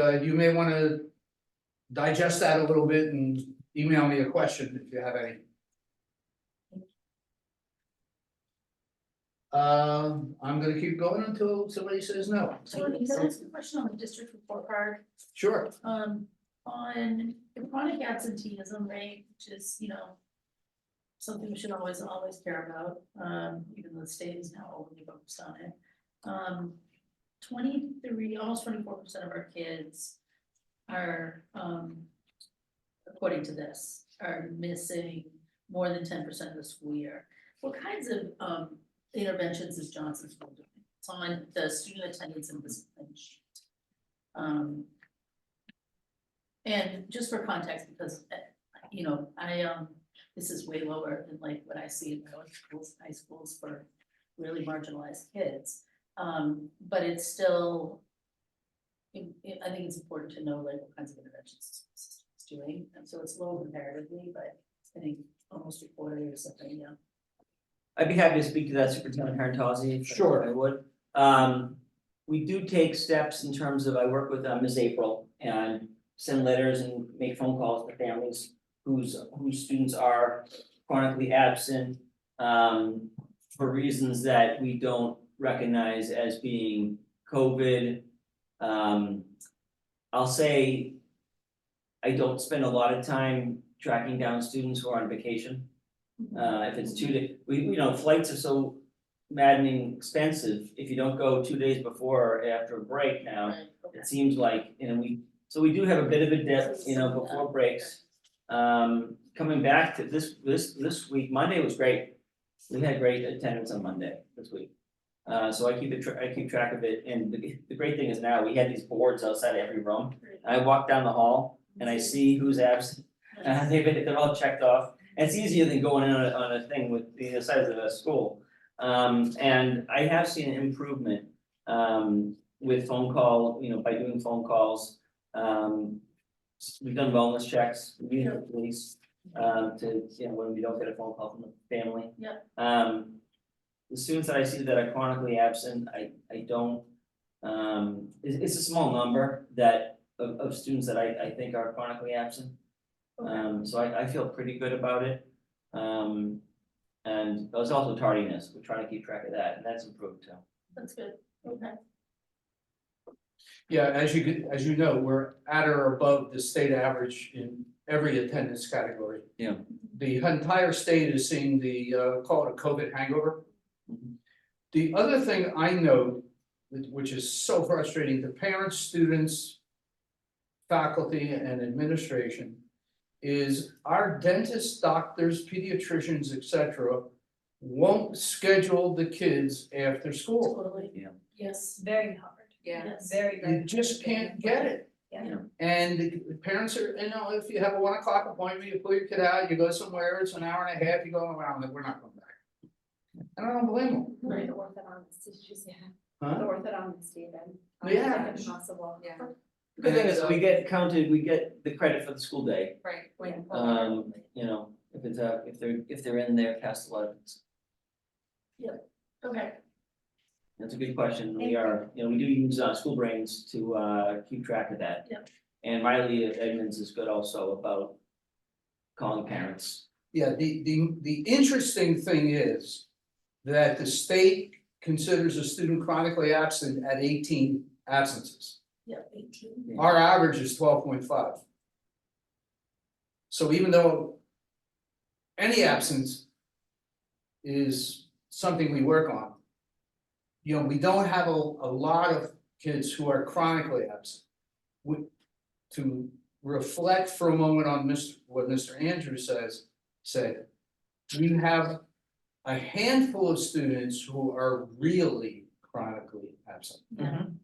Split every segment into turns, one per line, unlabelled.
uh, you may wanna digest that a little bit and email me a question if you have any. Um, I'm gonna keep going until somebody says no.
Tony, can I ask a question on the district report card?
Sure,
Um, on the chronic absenteeism rate, which is, you know. Something we should always, always care about, um, even though the state is now overly focused on it. Um, twenty-three, almost twenty-four percent of our kids are, um. According to this, are missing more than ten percent of the school year. What kinds of, um, interventions is Johnson School doing? It's on the student attendance and discipline sheet. Um, and just for context, because, eh, you know, I, um, this is way lower than like what I see in my own schools, high schools for really marginalized kids. Um, but it's still, I I think it's important to know like what kinds of interventions it's doing, and so it's low comparatively, but I think almost a quarter or something, yeah.
I'd be happy to speak to that Superintendent Harantozzi. if
Sure.
I would. Um, we do take steps in terms of, I work with uh, Ms. April and send letters and make phone calls to families whose, whose students are chronically absent um, for reasons that we don't recognize as being COVID. Um, I'll say I don't spend a lot of time tracking down students who are on vacation. Uh, if it's two day, we, you know, flights are so maddening expensive, if you don't go two days before or after a break now,
Right, okay.
it seems like, you know, we, so we do have a bit of a depth, you know, before breaks. Um, coming back to this, this, this week, Monday was great, we had great attendance on Monday this week. Uh, so I keep it, I keep track of it, and the, the great thing is now, we had these boards outside every room,
Great.
I walk down the hall Uh, and I see who's absent, uh, they've been, they're all checked off, And it's easier than going in on a, on a thing with the size of a school. Um, and I have seen improvement, um, with phone call, you know, by doing phone calls. Um, we've done wellness checks, we have police, um, to, you know, when we don't get a phone call from the family.
Yeah.
Um, the students that I see that are chronically absent, I, I don't, um, it's, it's a small number that, of, of students that I, I think are chronically absent.
Okay.
Um, so I, I feel pretty good about it. Um, and there's also tardiness, we're trying to keep track of that, and that's improved too.
That's good, okay,
yeah, as you could, as you know, we're at or above the state average in every attendance category.
Yeah.
The entire state is seeing the, uh, call it a COVID hangover. The other thing I know, which which is so frustrating to parents, students, faculty and administration, is our dentists, doctors, pediatricians, et cetera, won't schedule the kids after school.
totally,
Yeah.
yes.
Very hard.
Yeah.
Very,
You
very.
just can't get it.
Yeah.
And the the parents are, you know, if you have a one o'clock appointment, you pull your kid out, you go somewhere, it's an hour and a half, you go around, like, we're not going back. And I don't blame them,
The
Right.
orthodontist is just, yeah, the
huh?
orthodontist even. um,
Yeah.
it's Impossible, yeah,
The Good thing is,
And, uh,
we get counted, we get the credit for the school day,
right, when.
um, you know, if it's, uh, if they're, if they're in there past eleven.
Okay,
That's a good question, we are, you know, we do use, uh, school brains to, uh, keep track of that.
Yep.
And Riley Edmonds is good also about calling parents.
Yeah, the, the, the interesting thing is that the state considers a student chronically absent at eighteen absences.
yeah, eighteen.
Our average is twelve point five. So even though any absence is something we work on. You know, we don't have a, a lot of kids who are chronically absent. We- to reflect for a moment on Mr., what Mr. Andrews says, said, we have a handful of students who are really chronically absent.
Mhm.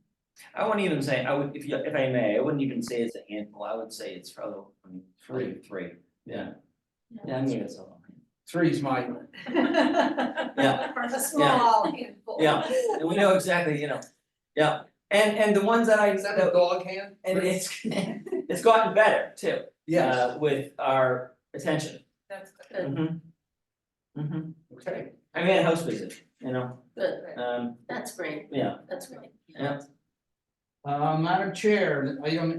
I wouldn't even say, I would, if you, if I may, I wouldn't even say it's a handful, I would say it's probably, I mean, probably three, yeah.
Yeah.
Yeah, I mean, it's a lot.
Three is my,
Yeah.
A small handful.
Yeah. And we know exactly, you know, yeah, and, and the ones that I,
is that a dog hand?
and it's, it's gotten better too.
Yes,
uh, With our attention.
That's good.
Good.
Mhm. Mhm.
okay.
I mean, a house visit, you know,
Good,
um,
that's great,
yeah,
that's great.
Yeah.
Uh, Madam Chair, item